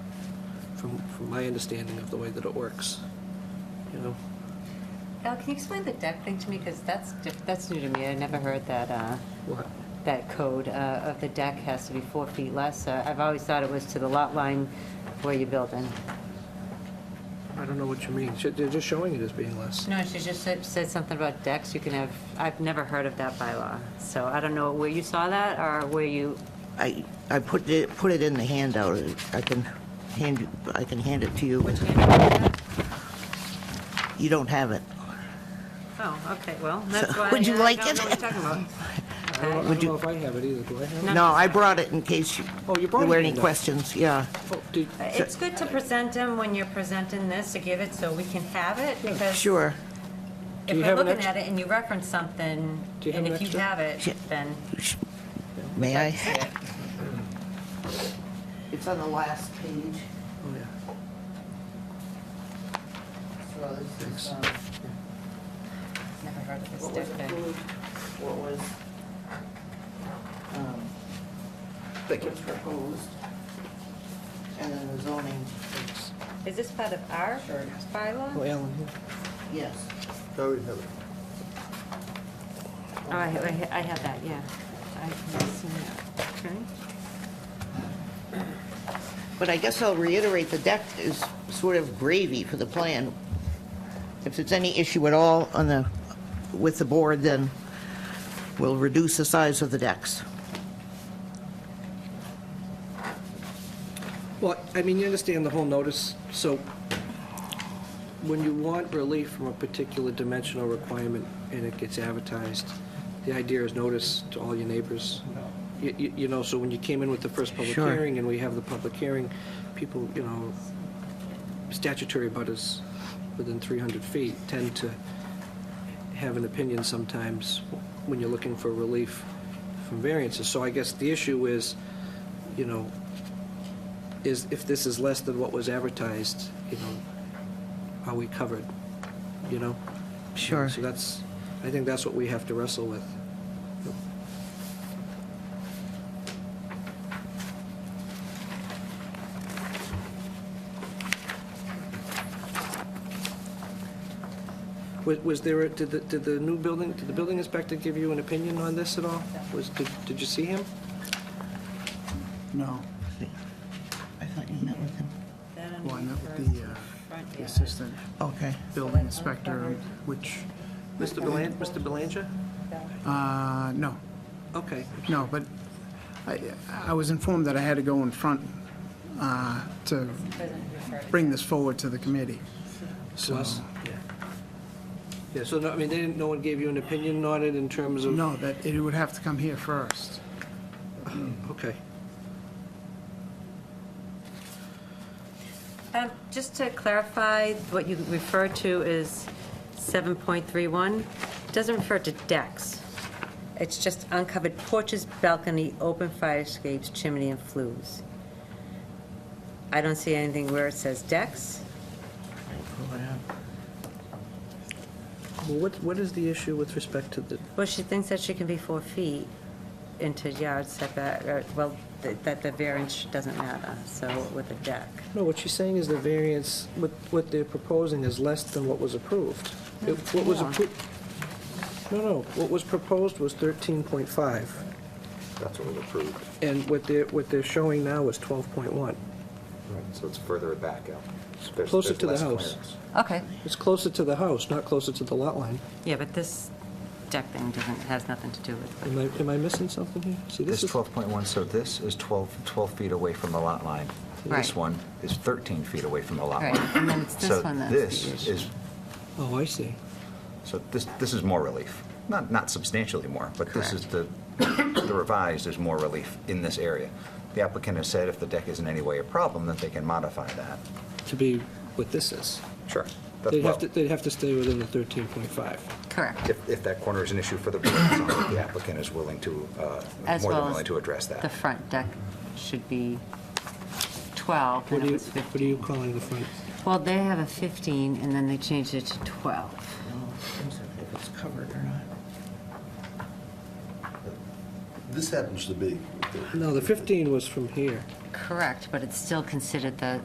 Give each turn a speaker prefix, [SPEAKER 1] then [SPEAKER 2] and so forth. [SPEAKER 1] from, from my understanding of the way that it works, you know?
[SPEAKER 2] Al, Uh, can you explain the deck thing to me? Because that's, diff- that's new to me. I never heard that, uh,
[SPEAKER 1] What,
[SPEAKER 2] that code uh, of the deck has to be four feet less. Uh, I've always thought it was to the lot line where you're building.
[SPEAKER 1] I don't know what you mean, Should- they're just showing it as being less.
[SPEAKER 2] No, she just said, said something about decks. You can have, I've never heard of that bylaw. So I don't know where you saw that or where you,
[SPEAKER 3] I, I put it, put it in the handout. I can hand, you- I can hand it to you.
[SPEAKER 2] which hand.
[SPEAKER 3] You don't have it.
[SPEAKER 2] Oh, okay, well, that's why.
[SPEAKER 3] would you
[SPEAKER 2] I
[SPEAKER 3] like
[SPEAKER 2] don't
[SPEAKER 3] it?
[SPEAKER 2] know what you're talking about.
[SPEAKER 1] I don't, I
[SPEAKER 3] Would
[SPEAKER 1] don't know
[SPEAKER 3] you-
[SPEAKER 1] if I have it either, do I have it?
[SPEAKER 2] No.
[SPEAKER 3] No, I brought it in case you-
[SPEAKER 1] Oh, you brought
[SPEAKER 3] there were
[SPEAKER 1] it
[SPEAKER 3] any
[SPEAKER 1] in there.
[SPEAKER 3] questions, yeah.
[SPEAKER 1] Oh, did-
[SPEAKER 2] It's good to present them when you're presenting this, to give it so we can have it, because
[SPEAKER 3] Sure.
[SPEAKER 2] if
[SPEAKER 1] you
[SPEAKER 2] we're
[SPEAKER 1] have an
[SPEAKER 2] looking
[SPEAKER 1] extra-
[SPEAKER 2] at it and you reference something,
[SPEAKER 1] Do you have
[SPEAKER 2] and
[SPEAKER 1] an
[SPEAKER 2] if you
[SPEAKER 1] extra?
[SPEAKER 2] have it,
[SPEAKER 3] Shit.
[SPEAKER 2] then
[SPEAKER 3] May I?
[SPEAKER 2] see it.
[SPEAKER 3] It's on the last page.
[SPEAKER 1] Oh, yeah.
[SPEAKER 3] So this is, um,
[SPEAKER 2] Never heard of this
[SPEAKER 3] what
[SPEAKER 2] deck
[SPEAKER 3] was
[SPEAKER 2] thing.
[SPEAKER 3] approved, what was, um,
[SPEAKER 1] Thank you.
[SPEAKER 3] was proposed, and then the zoning,
[SPEAKER 2] Is this part of our
[SPEAKER 3] Sure.
[SPEAKER 1] Oh,
[SPEAKER 2] bylaw?
[SPEAKER 1] Alan, here.
[SPEAKER 3] yes.
[SPEAKER 2] Oh, I, I I have that, yeah. I can see that. Okay.
[SPEAKER 3] But I guess I'll reiterate, the deck is sort of gravy for the plan. If there's any issue at all on the, with the board, then we'll reduce the size of the decks.
[SPEAKER 1] Well, I mean, you understand the whole notice, so when you want relief from a particular dimensional requirement and it gets advertised, the idea is notice to all your neighbors. You- You you know, so when you came in with the first public
[SPEAKER 3] Sure.
[SPEAKER 1] hearing and we have the public hearing, people, you know, statutory butters within 300 feet tend to have an opinion sometimes when you're looking for relief from variances. So I guess the issue is, you know, is if this is less than what was advertised, you know, are we covered, you know?
[SPEAKER 3] Sure.
[SPEAKER 1] So that's, I think that's what we have to wrestle with. Was, was there, a- did the, did the new building, did the building inspector give you an opinion on this at all? Was, did, did you see him?
[SPEAKER 4] No,
[SPEAKER 3] I thought you met with him.
[SPEAKER 2] That
[SPEAKER 4] well, I
[SPEAKER 2] under
[SPEAKER 4] met with the, uh,
[SPEAKER 2] front,
[SPEAKER 4] the
[SPEAKER 2] yeah.
[SPEAKER 4] assistant
[SPEAKER 3] Okay.
[SPEAKER 4] building inspector, which,
[SPEAKER 1] Mr. Belan, Mr. Belanger?
[SPEAKER 4] uh, no,
[SPEAKER 1] Okay.
[SPEAKER 4] no, but I, I was informed that I had to go in front, uh, to bring this forward to the committee.
[SPEAKER 1] To
[SPEAKER 4] So,
[SPEAKER 1] us? Yeah. Yeah, so, no, I mean, they didn't, no one gave you an opinion on it in terms of?
[SPEAKER 4] no, that, it would have to come here first.
[SPEAKER 1] Okay.
[SPEAKER 2] Um, Just to clarify, what you refer to is 7.31, doesn't refer to decks. It's just uncovered porches, balcony, open fire escapes, chimney, and flues. I don't see anything where it says decks.
[SPEAKER 1] Well, what, what is the issue with respect to the,
[SPEAKER 2] Well, she thinks that she can be four feet into yard setback, or, well, th- that the variance doesn't matter, so with a deck.
[SPEAKER 1] no, what she's saying is the variance, what, what they're proposing is less than what was approved. It- What was
[SPEAKER 2] more.
[SPEAKER 1] approved? No, no, what was proposed was thirteen point five,
[SPEAKER 5] That's what was approved.
[SPEAKER 1] and what they're, what they're showing now is twelve point one.
[SPEAKER 5] So it's further back out. So there's-
[SPEAKER 1] Closer
[SPEAKER 5] there's
[SPEAKER 1] to the
[SPEAKER 5] less
[SPEAKER 1] house.
[SPEAKER 5] clearance.
[SPEAKER 2] Okay.
[SPEAKER 1] It's closer to the house, not closer to the lot line.
[SPEAKER 2] Yeah, but this deck thing doesn't, has nothing to do with
[SPEAKER 1] Am I, am I missing something here? See,
[SPEAKER 5] This
[SPEAKER 1] this
[SPEAKER 5] is
[SPEAKER 1] is,
[SPEAKER 5] 12.1, so this is 12, 12 feet away from the lot line. This
[SPEAKER 2] Right.
[SPEAKER 5] one is 13 feet away from the lot
[SPEAKER 2] Right,
[SPEAKER 5] line.
[SPEAKER 2] and then it's this one that's the
[SPEAKER 5] So this
[SPEAKER 2] issue.
[SPEAKER 5] is,
[SPEAKER 1] oh, I see.
[SPEAKER 5] so this, this is more relief. Not, not substantially more, but this is the, the revised is more relief in this area. The applicant has said if the deck is in any way a problem, that they can modify that.
[SPEAKER 1] To be what this is.
[SPEAKER 5] Sure.
[SPEAKER 1] They'd have to, they'd have to stay within the thirteen point five.
[SPEAKER 2] Correct.
[SPEAKER 5] If, if that corner is an issue for the board, it's not that the applicant is willing to, uh,
[SPEAKER 2] As
[SPEAKER 5] more than
[SPEAKER 2] well as
[SPEAKER 5] willing to address that.
[SPEAKER 2] The front deck should be 12,
[SPEAKER 1] What are
[SPEAKER 2] and it
[SPEAKER 1] you,
[SPEAKER 2] was
[SPEAKER 1] what are you
[SPEAKER 2] 15.
[SPEAKER 1] calling the front?
[SPEAKER 2] Well, they have a 15, and then they changed it to 12.
[SPEAKER 3] If it's covered or not.
[SPEAKER 6] This happens to be.
[SPEAKER 1] No, the 15 was from here.
[SPEAKER 2] Correct, but it's still considered the